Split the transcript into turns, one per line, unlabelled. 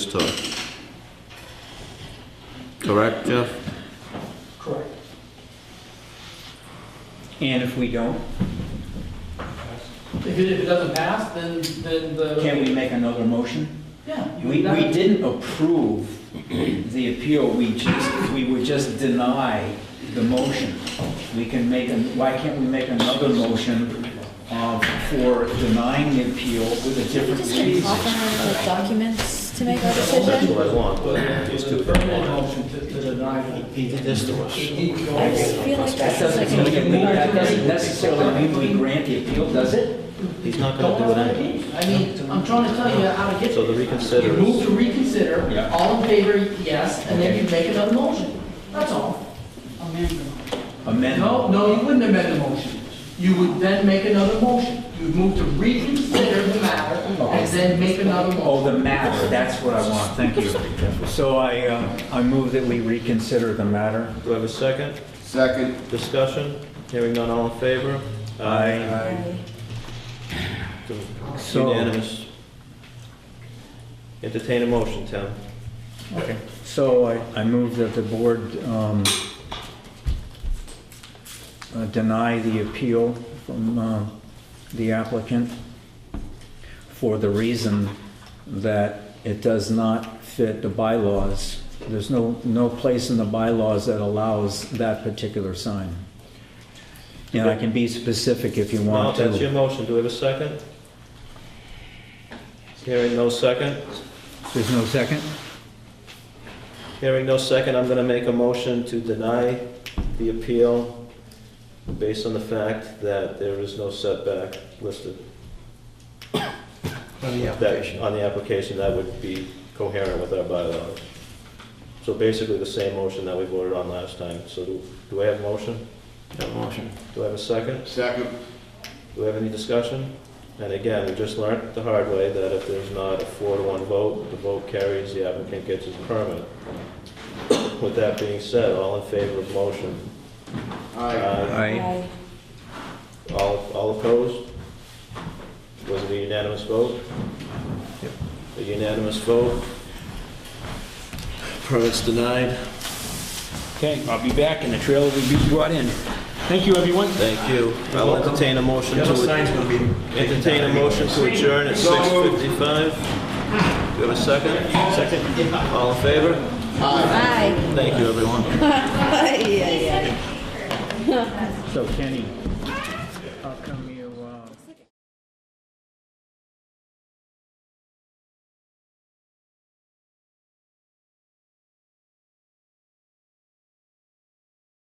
to. Correct, Jeff?
Correct.
And if we don't,
If it, if it doesn't pass, then, then the.
can we make another motion?
Yeah. you
We,
would
we
not-
didn't approve the appeal, we just, we would just deny the motion. We can make, an- why can't we make another motion um, for denying the appeal with a
Are we
different
just gonna
reason?
talk around the documents to make our
That's
decision?
what I want.
But it's a permanent motion to, to deny the.
He did this to us.
I just feel like
That
this is like
doesn't
a
mean, we- that doesn't necessarily mean we grant the appeal, does it?
He's not
Don't
gonna do it
have to
anyway.
keep. I mean, I'm trying to tell you how to get.
So the reconsider
You
is-
move to reconsider,
Yeah.
all in favor, yes, and then you make another motion. That's all.
Amend?
No, no, you wouldn't amend the motion. You would then make another motion. You'd move to reconsider the matter and then make another
Oh,
motion.
the matter, that's what I want, thank you. So I, um, I move that we reconsider the matter.
Do I have a second?
Second.
Discussion? Hearing none, all in favor? Aye. It's
So-
Unanimous. Entertain a motion, Tim.
So I, I move that the board um, uh, deny the appeal from uh, the applicant for the reason that it does not fit the bylaws. There's no, no place in the bylaws that allows that particular sign. And I can be specific if you
No,
want
that's your
to.
motion. Do we have a second? Hearing no second?
There's no second?
Hearing no second, I'm gonna make a motion to deny the appeal based on the fact that there is no setback listed. On the application. On the application, that would be coherent with our bylaws. So basically the same motion that we voted on last time. So do, do I have a motion? motion. Do I have a second?
Second.
Do we have any discussion? And again, we just learned the hard way that if there's not a four to one vote, the vote carries, the applicant gets his permit. With that being said, all in favor of motion?
Aye.
Aye.
All, all opposed? Was it a unanimous vote? A unanimous vote? Permit's denied.
Okay, I'll be back and the trailer will be brought in. Thank you, everyone.
Thank you. I'll entertain a motion to. Entertain a motion to adjourn at six fifty-five. Do you have a second? Second. All in favor?
Aye.
Thank you, everyone.
Aye. yeah, yeah.
So Kenny. uh,